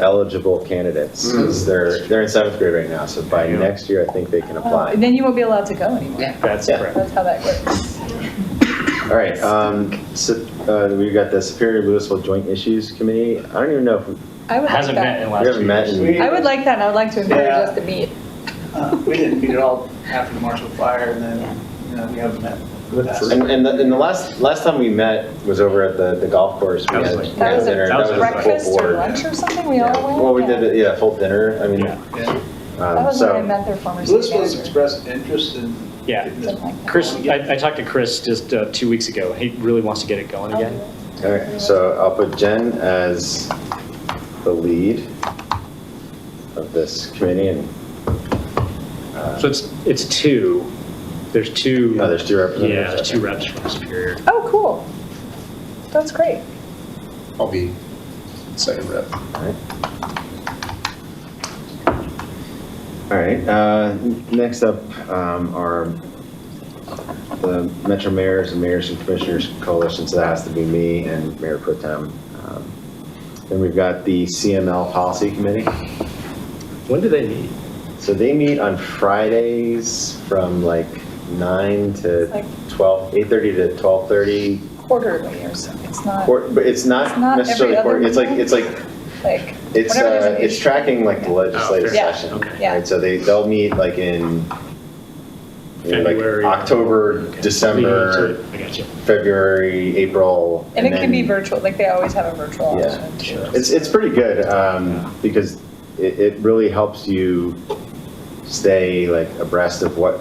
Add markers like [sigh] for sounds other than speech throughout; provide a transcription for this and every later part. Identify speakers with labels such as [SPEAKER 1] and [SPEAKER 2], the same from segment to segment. [SPEAKER 1] eligible candidates,
[SPEAKER 2] Mm.
[SPEAKER 1] 'cause they're, they're in seventh grade right now, so by next year, I think they can
[SPEAKER 3] Oh,
[SPEAKER 1] apply.
[SPEAKER 3] Then you won't be allowed to go anymore.
[SPEAKER 4] Yeah.
[SPEAKER 2] That's
[SPEAKER 1] Yeah.
[SPEAKER 2] correct.
[SPEAKER 3] That's how that works.
[SPEAKER 1] All right, um, so, uh, we've got the Superior Louisville Joint Issues Committee, I don't even know if, we
[SPEAKER 3] I would like
[SPEAKER 2] Hasn't met in
[SPEAKER 3] that.
[SPEAKER 2] the
[SPEAKER 1] we
[SPEAKER 2] last
[SPEAKER 1] haven't
[SPEAKER 2] two
[SPEAKER 1] met
[SPEAKER 2] years.
[SPEAKER 1] in,
[SPEAKER 3] I would like that, and I would like to encourage
[SPEAKER 5] Yeah.
[SPEAKER 3] us to meet. [laughs]
[SPEAKER 5] Uh, We didn't meet at all after the Marshall Fire, and then, you know, we haven't met.
[SPEAKER 1] and, and the, and the last, last time we met was over at the, the golf course. We
[SPEAKER 2] That was
[SPEAKER 1] had-
[SPEAKER 2] like-
[SPEAKER 1] we
[SPEAKER 3] That
[SPEAKER 1] had
[SPEAKER 3] was
[SPEAKER 1] dinner.
[SPEAKER 3] a
[SPEAKER 2] That was a
[SPEAKER 1] full
[SPEAKER 3] breakfast or
[SPEAKER 1] board.
[SPEAKER 3] lunch or something, we
[SPEAKER 1] Yeah. Well,
[SPEAKER 3] all
[SPEAKER 1] we
[SPEAKER 3] went.
[SPEAKER 1] did,
[SPEAKER 3] Yeah.
[SPEAKER 1] it- yeah, full dinner, I mean,
[SPEAKER 2] Yeah.
[SPEAKER 5] Yeah.
[SPEAKER 3] That
[SPEAKER 1] um,
[SPEAKER 3] was when I
[SPEAKER 1] so,
[SPEAKER 3] met their former city
[SPEAKER 5] Elizabeth's
[SPEAKER 3] manager.
[SPEAKER 5] expressed interest in.
[SPEAKER 2] Yeah.
[SPEAKER 5] in this-
[SPEAKER 3] Something like that.
[SPEAKER 2] Chris, I, I talked to Chris just uh, two weeks ago. He really wants to get it going again.
[SPEAKER 1] all right, so I'll put Jen as the lead of this committee and, uh,
[SPEAKER 2] So it's, it's two. There's two.
[SPEAKER 1] Oh, there's two representatives,
[SPEAKER 2] Yeah, there's two
[SPEAKER 1] okay.
[SPEAKER 2] reps from Superior.
[SPEAKER 3] Oh, cool. That's great.
[SPEAKER 6] I'll be second rep.
[SPEAKER 1] Alright. Alright, uh, next up, um, are the Metro Mayors and Mayors and Commissioners Coalition, so that has to be me and Mayor Pro Tem. Um, Then we've got the CML Policy Committee.
[SPEAKER 2] When do they meet?
[SPEAKER 1] So they meet on Fridays from like nine to
[SPEAKER 3] Like-
[SPEAKER 1] twelve, eight-thirty to twelve-thirty.
[SPEAKER 3] Quarterly or something. It's not
[SPEAKER 1] But it's
[SPEAKER 3] It's
[SPEAKER 1] not
[SPEAKER 3] not every
[SPEAKER 1] necessarily,
[SPEAKER 3] other
[SPEAKER 1] quarter- it's like,
[SPEAKER 3] Monday?
[SPEAKER 1] it's like,
[SPEAKER 3] like,
[SPEAKER 1] it's,
[SPEAKER 3] Whenever there's
[SPEAKER 1] uh,
[SPEAKER 3] an
[SPEAKER 1] it's
[SPEAKER 3] issue.
[SPEAKER 1] tracking like the legislative
[SPEAKER 2] fair.
[SPEAKER 3] Yeah.
[SPEAKER 1] session.
[SPEAKER 2] Oh, Okay.
[SPEAKER 3] yeah.
[SPEAKER 1] Right, so they, they'll meet like in, you know,
[SPEAKER 2] February.
[SPEAKER 1] like October,
[SPEAKER 2] Okay.
[SPEAKER 1] December,
[SPEAKER 2] I got you.
[SPEAKER 1] February, April.
[SPEAKER 3] And it can be
[SPEAKER 1] then-
[SPEAKER 3] virtual, like they always have a virtual
[SPEAKER 1] Yeah,
[SPEAKER 3] option.
[SPEAKER 2] sure.
[SPEAKER 1] It's, it's pretty good, um, because it, it really helps you stay like abreast of what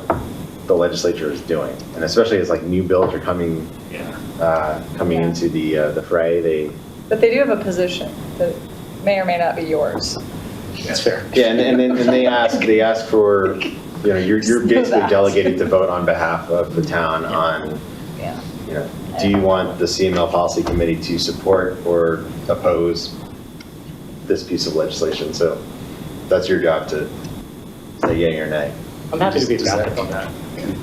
[SPEAKER 1] the legislature is doing. And especially as like new bills are coming,
[SPEAKER 2] Yeah.
[SPEAKER 1] uh, coming
[SPEAKER 3] Yeah.
[SPEAKER 1] into the, uh, the fray, they,
[SPEAKER 3] But they do have a position that may or may not be yours.
[SPEAKER 2] That's fair.
[SPEAKER 1] yeah, and, and then, and they ask, they ask for, you know, you're, you're
[SPEAKER 3] Just know
[SPEAKER 1] basically
[SPEAKER 3] that.
[SPEAKER 1] delegated to vote on behalf of the town on
[SPEAKER 3] Yeah.
[SPEAKER 1] you know, do you want the CML policy committee to support or oppose this piece of legislation? So that's your job to say yay or nay.
[SPEAKER 2] I'm happy to be a
[SPEAKER 6] Does that-
[SPEAKER 2] backup on that.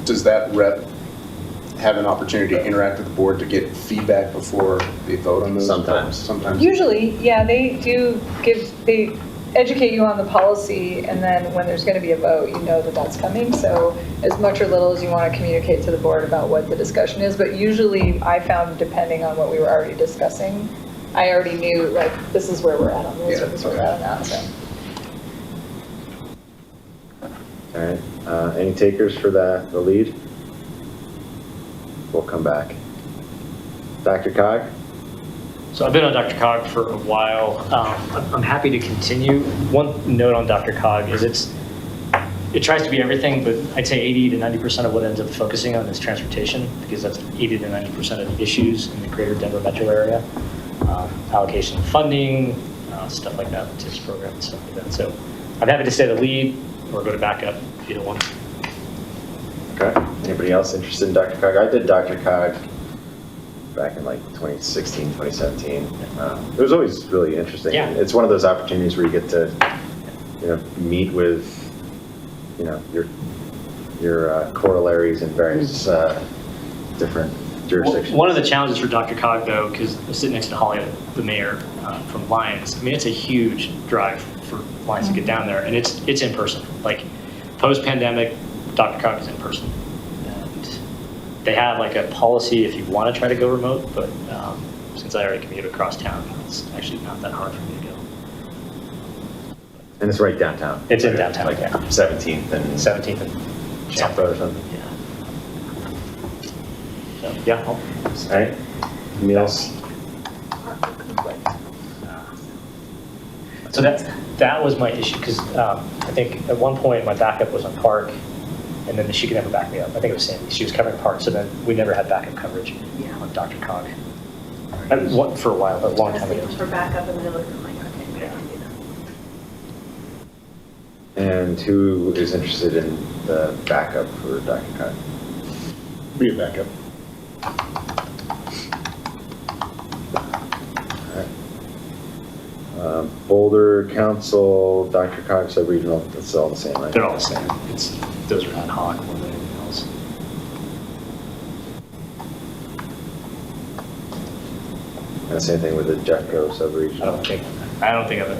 [SPEAKER 6] Does that rep have an opportunity to interact with the board to get feedback before they vote on those?
[SPEAKER 1] Sometimes.
[SPEAKER 6] Sometimes.
[SPEAKER 3] Usually, yeah, they do give, they educate you on the policy, and then when there's going to be a vote, you know that that's coming. So as much or little as you want to communicate to the board about what the discussion is, but usually I found, depending on what we were already discussing, I already knew, like, this is where we're at on this, or
[SPEAKER 6] Yeah,
[SPEAKER 3] this is where we're
[SPEAKER 6] okay.
[SPEAKER 3] at on that, so.
[SPEAKER 1] All right, uh, any takers for the, the lead? We'll come back. Dr. Cog?
[SPEAKER 2] So I've been on Dr. Cog for a while. Um, I'm- I'm happy to continue. One note on Dr. Cog is it's, it tries to be everything, but I'd say 80 to 90% of what it ends up focusing on is transportation, because that's 80 to 90% of the issues in the greater Denver metro area. Um, Allocation of funding, uh, stuff like that, TIPS program, and stuff like that. So I'm happy to stay the lead or go to backup if you don't want.
[SPEAKER 1] Okay, anybody else interested in Dr. Cog? I did Dr. Cog back in like 2016, 2017. Um, It was always really interesting.
[SPEAKER 2] Yeah.
[SPEAKER 1] It's one of those opportunities where you get to, you know, meet with, you know, your, your uh, corollaries in various uh, different jurisdictions.
[SPEAKER 2] Hmm. One of the challenges for Dr. Cog, though, because I sit next to Holly, the mayor uh, from Lions, I mean, it's a huge drive for Lions to get down there, and it's, it's in person. Like, post-pandemic, Dr. Cog is in person. And they have like a policy if you want to try to go remote, but um, since I already commute across town, it's actually not that hard for me to go.
[SPEAKER 1] And it's right downtown.
[SPEAKER 2] It's in downtown,
[SPEAKER 1] Like
[SPEAKER 2] yeah.
[SPEAKER 1] 17th and
[SPEAKER 2] 17th and,
[SPEAKER 1] Champa or something.
[SPEAKER 2] yeah. So, yeah,
[SPEAKER 1] All
[SPEAKER 2] I'll-
[SPEAKER 1] right, anybody else?
[SPEAKER 2] So that, that was my issue, because I think at one point, my backup was on Park, and then she could never back me up. I think it was Sandy, she was covering Park, so then we never had backup coverage on Dr. Cog. I- one- For a while, but a long time
[SPEAKER 7] I was
[SPEAKER 2] ago.
[SPEAKER 7] looking for backup and then I looked and I'm like, okay, I can do that.
[SPEAKER 1] And who is interested in the backup for Dr. Cog?
[SPEAKER 6] Be a backup.
[SPEAKER 1] Um, Boulder Council, Dr. Cox, said regional, it's all the same, right?
[SPEAKER 2] They're all the same. It's, those are ad hoc more than anything else.
[SPEAKER 1] And the same thing with the Jetco
[SPEAKER 2] I
[SPEAKER 1] sub-regional.
[SPEAKER 2] don't think, I don't think I've